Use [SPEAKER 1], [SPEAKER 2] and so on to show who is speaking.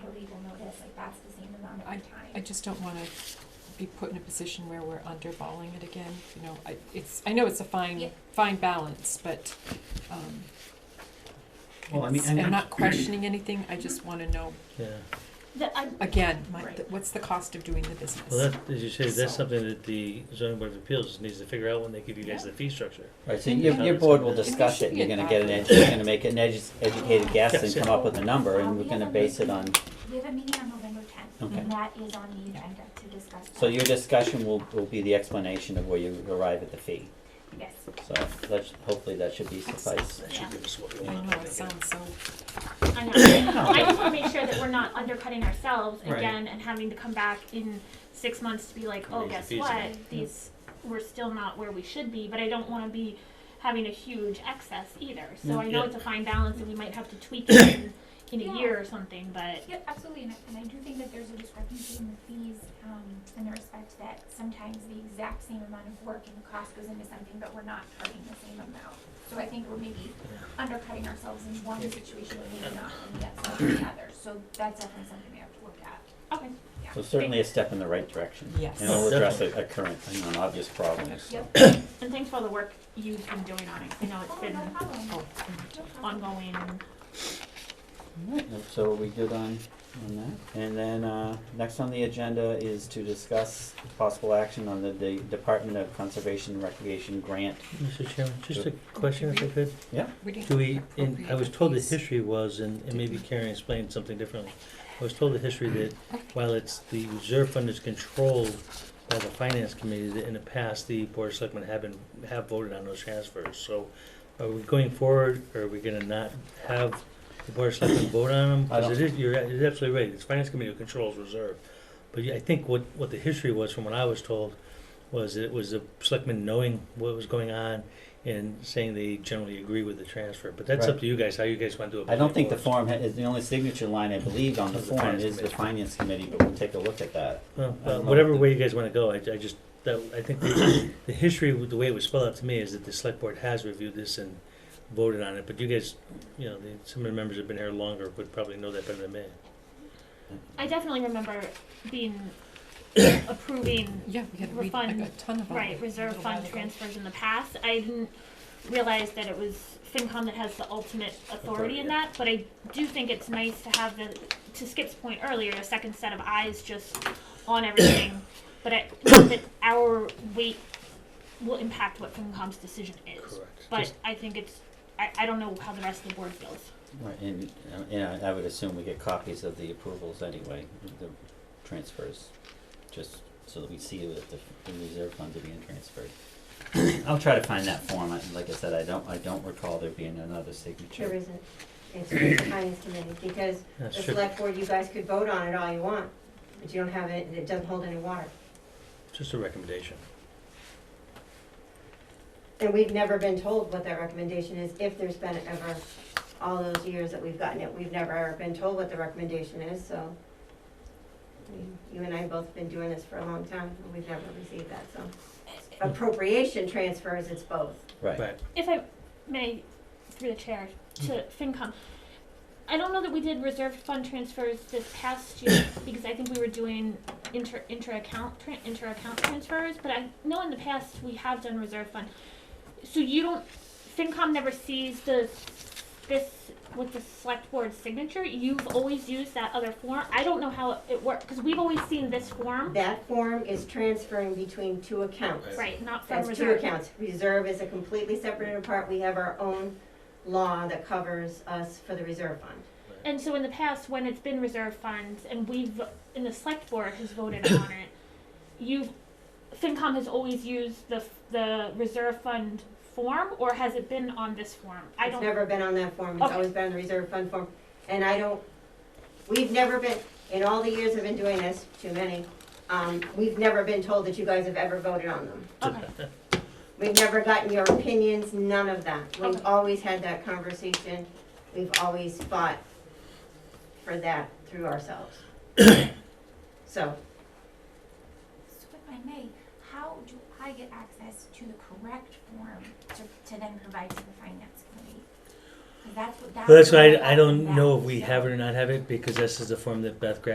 [SPEAKER 1] notice, like that's the same amount of time.
[SPEAKER 2] I just don't wanna be put in a position where we're underballing it again, you know, I, it's, I know it's a
[SPEAKER 1] Yeah.
[SPEAKER 2] fine, fine balance, but, um,
[SPEAKER 3] Well, I
[SPEAKER 2] it's-
[SPEAKER 3] mean, and-
[SPEAKER 2] I'm not questioning anything, I just wanna know,
[SPEAKER 4] Yeah,
[SPEAKER 1] The- I-
[SPEAKER 2] again, my,
[SPEAKER 1] Right.
[SPEAKER 2] th- what's the cost of doing the business?
[SPEAKER 4] well, that, as you say, that's
[SPEAKER 2] So-
[SPEAKER 4] something that the zoning board of appeals needs to figure out when they give you guys
[SPEAKER 2] Yeah.
[SPEAKER 4] the fee structure.
[SPEAKER 5] Right, so your,
[SPEAKER 4] Yeah.
[SPEAKER 5] your board will
[SPEAKER 4] And there
[SPEAKER 5] discuss
[SPEAKER 2] should
[SPEAKER 5] it, and
[SPEAKER 2] be
[SPEAKER 5] you're
[SPEAKER 2] a
[SPEAKER 5] gonna get an,
[SPEAKER 2] document.
[SPEAKER 5] edu- you're gonna make an edu- educated guess
[SPEAKER 4] Yes,
[SPEAKER 5] and
[SPEAKER 4] yeah.
[SPEAKER 5] come up with a number,
[SPEAKER 1] Um,
[SPEAKER 5] and we're
[SPEAKER 1] we
[SPEAKER 5] gonna
[SPEAKER 1] have a
[SPEAKER 5] base it
[SPEAKER 1] meeting.
[SPEAKER 5] on,
[SPEAKER 1] We have a meeting on November tenth,
[SPEAKER 5] Okay.
[SPEAKER 1] and that is on the agenda to discuss.
[SPEAKER 5] so
[SPEAKER 1] that.
[SPEAKER 5] your discussion will, will be the explanation of where you arrive at the fee.
[SPEAKER 1] Yes,
[SPEAKER 5] So that's, hopefully that should be suffice.
[SPEAKER 4] That should give us what we
[SPEAKER 2] I
[SPEAKER 4] want.
[SPEAKER 2] know, it sounds so,
[SPEAKER 1] I know, I just wanna make sure that we're not undercutting ourselves
[SPEAKER 5] Right.
[SPEAKER 6] again and having to come back in six months to be like, oh,
[SPEAKER 4] Raise the
[SPEAKER 6] guess
[SPEAKER 4] fees
[SPEAKER 6] what?
[SPEAKER 4] again."
[SPEAKER 6] These we're still not where we should be, but I don't want to be having a huge excess either. So I know
[SPEAKER 4] Yeah.
[SPEAKER 6] it's a fine balance, and we might have to tweak it in, in a
[SPEAKER 1] Yeah.
[SPEAKER 6] year or something. But
[SPEAKER 1] yeah, absolutely, and I, and I do think that there's a discrepancy in the fees, um, in the respect that sometimes the exact same amount of work and cost goes into something, but we're not charging the same amount. So I think we're maybe undercutting ourselves in one situation and maybe not in the other- in the other, so that's definitely something we have to look at.
[SPEAKER 6] okay,
[SPEAKER 5] So certainly a step in the right direction.
[SPEAKER 2] Yes.
[SPEAKER 5] And it'll address a, a current, and an obvious problem.
[SPEAKER 1] Yep.
[SPEAKER 6] and thanks for all the work you've been doing on it. I know it's
[SPEAKER 1] Oh,
[SPEAKER 6] been
[SPEAKER 1] no problem,
[SPEAKER 2] oh,
[SPEAKER 1] no problem.
[SPEAKER 6] ongoing.
[SPEAKER 5] Alright, so are we good on, on that? And then, uh, next on the agenda is to discuss possible action on the, the Department of Conservation and Recreation grant.
[SPEAKER 4] Mr. Chairman, just a question if I could.
[SPEAKER 2] we didn't.
[SPEAKER 4] Do we, and I was told the
[SPEAKER 2] Appropriate fees.
[SPEAKER 4] history was, and and maybe Karen explained something differently. I was told the history that while it's, the reserve fund is controlled by the finance committee, that in the past, the board of selectmen have been, have voted on those transfers. So are we going forward, or are we gonna not have the board of selectmen vote on them?
[SPEAKER 5] I
[SPEAKER 4] Because it is, you're, you're absolutely right, it's finance committee who controls reserve. But yeah, I think what, what the history was, from what I was told, was it was the selectmen knowing what was going on and saying they generally agree with the transfer. But that's up
[SPEAKER 5] Right.
[SPEAKER 4] to you guys, how you guys want to do it.
[SPEAKER 5] I don't think the
[SPEAKER 4] form.
[SPEAKER 5] form ha- is, the only signature line I believe on the
[SPEAKER 4] Is the
[SPEAKER 5] form
[SPEAKER 4] finance
[SPEAKER 5] is the
[SPEAKER 4] committee.
[SPEAKER 5] finance committee, but we'll take a look at that.
[SPEAKER 4] Well,
[SPEAKER 5] I don't
[SPEAKER 4] uh,
[SPEAKER 5] know.
[SPEAKER 4] whatever way you guys wanna go, I, I just, that, I think the, the history, with the way it was spelled out to me is that the select board has reviewed this and voted on it, but you guys, you know, the- some of the members have been here longer, would probably know that better than me.
[SPEAKER 6] I definitely remember being approving
[SPEAKER 2] Yeah, we had, we, I
[SPEAKER 6] Refund,
[SPEAKER 2] got a ton of them.
[SPEAKER 6] Right, reserve
[SPEAKER 2] little while
[SPEAKER 6] fund
[SPEAKER 2] ago.
[SPEAKER 6] transfers in the past, I didn't realize that it was FinCom that has the ultimate authority
[SPEAKER 4] Authority.
[SPEAKER 6] in that, but I do think it's nice to have the, to Skip's point earlier, a second set of eyes just on everything, but I, not that our weight will impact what FinCom's decision is. But
[SPEAKER 4] Just-
[SPEAKER 6] I think it's, I, I don't know how the rest of the board feels.
[SPEAKER 5] Right, and, uh, and I I would assume we get copies of the approvals anyway, the transfers, just so that we see that the, the reserve funds are being transferred. I'll try to find that form, I, like I said, I don't, I don't recall there being another
[SPEAKER 7] There
[SPEAKER 5] signature.
[SPEAKER 7] isn't, it's the finance committee, because
[SPEAKER 4] Yeah,
[SPEAKER 7] the
[SPEAKER 4] sure.
[SPEAKER 7] select board, you guys could vote on it all you want, but you don't have it, and it doesn't hold any water.
[SPEAKER 4] Just a recommendation.
[SPEAKER 7] And we've never been told what that recommendation is, if there's been ever, all those years that we've gotten it, we've never ever been told what the recommendation is, so. I mean, You and I both been doing this for a long time, and we've never received that, so. Appropriation transfers, it's both.
[SPEAKER 5] Right,
[SPEAKER 6] if I may, through the chair, to FinCom, I don't know that we did reserve fund transfers this past year because I think we were doing inter inter account tran inter account transfers, but I know in the past we have done reserve fund. So you don't FinCom never sees the this with the select board signature. You've always used that other form. I don't know how it works because we've always seen this form,
[SPEAKER 7] That form is transferring between two accounts.
[SPEAKER 6] right? Not from
[SPEAKER 7] That's
[SPEAKER 6] reserve.
[SPEAKER 7] two accounts. Reserve is a completely separate and apart. We have our own law that covers us for the reserve fund.
[SPEAKER 6] And so in the past, when it's been reserve funds and we've, and the select board has voted on it, you've, FinCom has always used the, the reserve fund form or has it been on this form? I
[SPEAKER 7] It's
[SPEAKER 6] don't,
[SPEAKER 7] never been on that form. It's
[SPEAKER 6] Okay.
[SPEAKER 7] always been on the reserve fund form. And I don't, we've never been, in all the years I've been doing this, too many, um, we've never been told that you guys have ever voted on them.
[SPEAKER 6] okay,
[SPEAKER 7] We've never gotten your opinions, none of that.
[SPEAKER 6] Okay.
[SPEAKER 7] We've always had that conversation. We've always fought for that through ourselves. So,
[SPEAKER 1] So if I may, how do I get access to the correct form to, to then provide to the finance committee? 'Cause that's what, that's.
[SPEAKER 4] Well, that's
[SPEAKER 1] what
[SPEAKER 4] why I, I don't
[SPEAKER 1] found
[SPEAKER 4] know
[SPEAKER 1] out,
[SPEAKER 4] if we
[SPEAKER 1] so-
[SPEAKER 4] have it or not have it, because this is the form that Beth grabbed